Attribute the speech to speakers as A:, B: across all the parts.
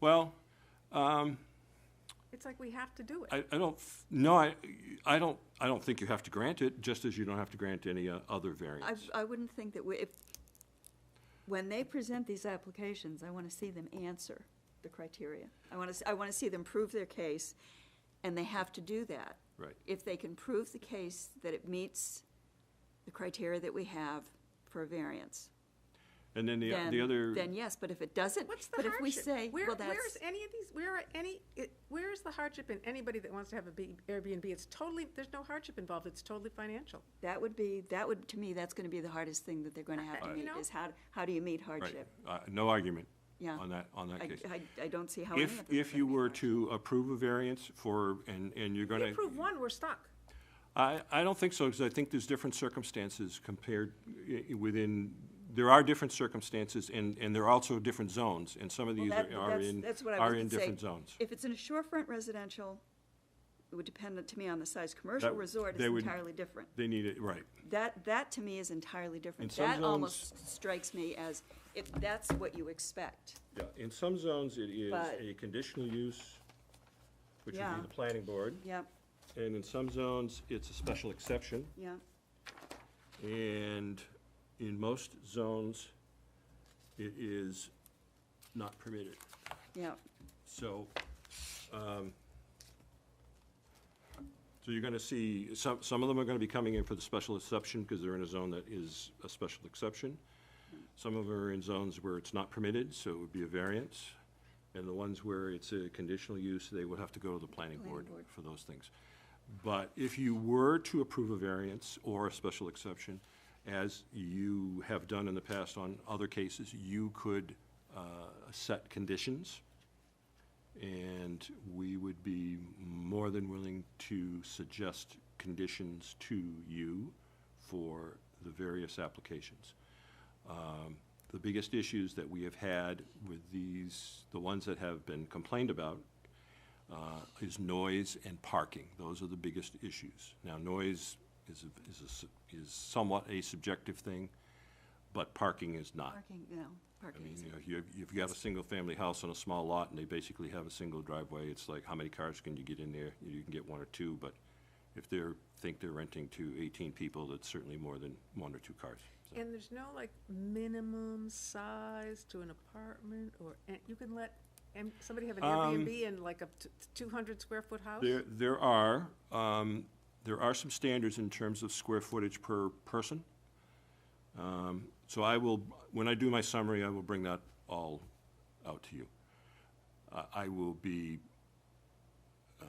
A: Well,
B: It's like we have to do it.
A: I, I don't, f- no, I, I don't, I don't think you have to grant it, just as you don't have to grant any uh, other
C: I,
A: variance.
C: I wouldn't think that we, if, when they present these applications, I want to see them answer the criteria. I want to, I want to see them prove their case, and they have to do that.
A: Right.
C: If they can prove the case that it meets the criteria that we have for a variance,
A: And then the,
C: then,
A: the other,
C: then yes, but if it doesn't,
B: What's the
C: but
B: hardship?
C: if we say,
B: Where-
C: well,
B: Where's
C: that's,
B: any of these, where are any, it- where is the hardship in anybody that wants to have a B- Airbnb? It's totally, there's no hardship involved, it's totally financial.
C: that would be, that would, to me, that's going to be the hardest thing that they're going to have
B: Uh,
C: to
B: you
C: meet,
B: know?
C: is how, how do you meet
A: right,
C: hardship?
A: uh, no argument
C: Yeah.
A: on that, on that
C: I,
A: case.
C: I, I don't see how any of
A: If,
C: them.
A: if you were to approve a variance for, and, and you're
B: If
A: gonna,
B: you approve one, we're stuck.
A: I, I don't think so, because I think there's different circumstances compared i- i- within, there are different circumstances, and, and there are also different zones, and some of
C: Well,
A: these
C: that-
A: are are
C: that's-
A: in,
C: that's what I
A: are
C: was
A: in
C: gonna say.
A: different zones.
C: If it's in a shorefront residential, it would depend to me on the size. Commercial
A: That-
C: resort is
A: they would-
C: entirely different.
A: They need it, right.
C: That, that to me is entirely different.
A: In some
C: That
A: zones-
C: almost strikes me as, if that's what you expect.
A: Yeah, in some zones, it is
C: But-
A: a conditional use, which would
C: Yeah.
A: be the planning board,
C: Yep,
A: and in some zones, it's a special exception,
C: yep.
A: and in most zones, it is not permitted.
C: Yeah,
A: So, um, so you're gonna see, some, some of them are gonna be coming in for the special exception, because they're in a zone that is a special exception. Some of them are in zones where it's not permitted, so it would be a variance. And the ones where it's a conditional use, they would have to go to the planning board for those things. But if you were to approve a variance or a special exception, as you have done in the past on other cases, you could, uh, set conditions. And we would be more than willing to suggest conditions to you for the various applications. Um, The biggest issues that we have had with these, the ones that have been complained about, uh, is noise and parking. Those are the biggest issues. Now, noise is, a- is a s- is somewhat a subjective thing, but parking is not.
C: parking, no,
A: I
C: parking
A: mean,
C: is,
A: you know, if you, if you have a single-family house on a small lot and they basically have a single driveway, it's like, how many cars can you get in there? You can get one or two, but if they're, think they're renting to eighteen people, that's certainly more than one or two cars. So,
B: And there's no like minimum size to an apartment or, an- you can let, and somebody have an
A: Um,
B: Airbnb in like a two hundred square foot house?
A: There, there are, um, there are some standards in terms of square footage per person. Um, so I will, when I do my summary, I will bring that all out to you. I, I will be uh,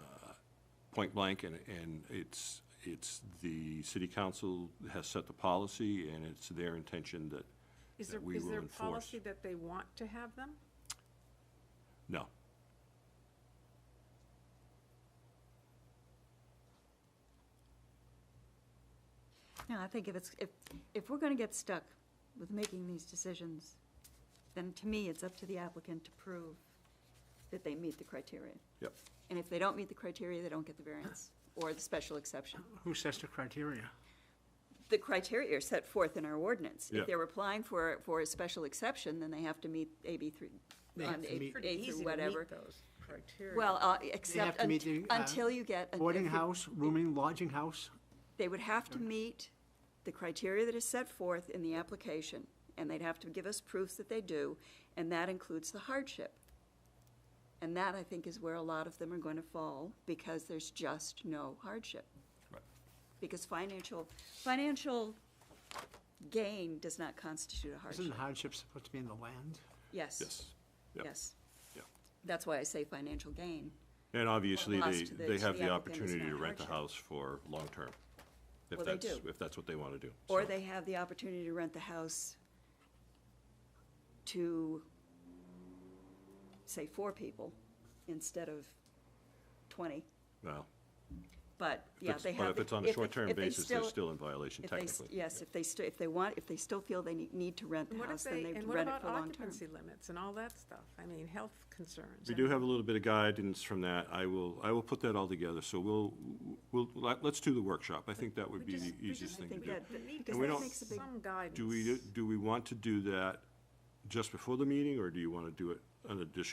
A: point blank, and, and it's, it's the city council has set the policy, and it's their intention that,
B: Is there,
A: that we
B: is
A: will
B: there
A: enforce.
B: policy that they want to have them?
A: No.
C: no, I think if it's, if, if we're gonna get stuck with making these decisions, then to me, it's up to the applicant to prove that they meet the criteria.
A: Yep.
C: And if they don't meet the criteria, they don't get the variance or the special exception.
D: Who sets the criteria?
C: The criteria are set forth in our ordinance.
A: Yeah.
C: If they're applying for, for a special exception, then they have to meet AB three,
D: They have
C: on
D: to
C: A
D: meet-
B: Pretty
C: A
B: easy to
C: through
B: meet
C: whatever.
B: those criteria.
C: Well, uh, except
D: to meet
C: unt-
D: the, uh,
C: until you get. a-
D: Boarding
C: if you-
D: house, rooming, lodging house?
C: They would have to meet the criteria that is set forth in the application, and they'd have to give us proofs that they do, and that includes the hardship. And that, I think, is where a lot of them are going to fall, because there's just no hardship.
A: Right.
C: Because financial, financial gain does not constitute a
D: Isn't
C: hardship.
D: hardship supposed to be in the land?
C: Yes.
A: Yes. Yep.
C: Yes.
A: Yep.
C: That's why I say financial gain.
A: And obviously, they,
C: Lost to the-
A: they
C: to
A: have
C: the
A: the
C: applicant is
A: opportunity
C: not
A: to rent the
C: hardship.
A: house for long-term. if
C: Well, they
A: that's-
C: do.
A: If that's what they want to do.
C: Or
A: So-
C: they have the opportunity to rent the house to, say, four people instead of twenty.
A: Well,
C: But,
A: if
C: yeah,
A: it's-
C: they have.
A: but if
C: the-
A: it's on a
C: if they-
A: short-term
C: if they
A: basis, they're still in violation
C: if they s-
A: technically.
C: Yes, if they still, if they want, if they still feel they need, need to rent
B: And
C: the
B: what if
C: house, then
B: they,
C: they
B: and what
C: rent it
B: about
C: for long-term.
B: occupancy limits and all that stuff? I mean, health concerns.
A: We
B: I
A: do
B: mean-
A: have a little bit of guidance from that. I will, I will put that all together, so we'll, we'll, let- let's do the workshop. I think that would be the
B: just- we
A: easiest thing
B: just-
A: to
C: I
A: do.
C: think that,
B: We need
C: because
A: we
C: that
A: don't-
C: makes a big,
B: Some guidance.
A: Do we, do we want to do that just before the meeting, or do you want to do it an addition?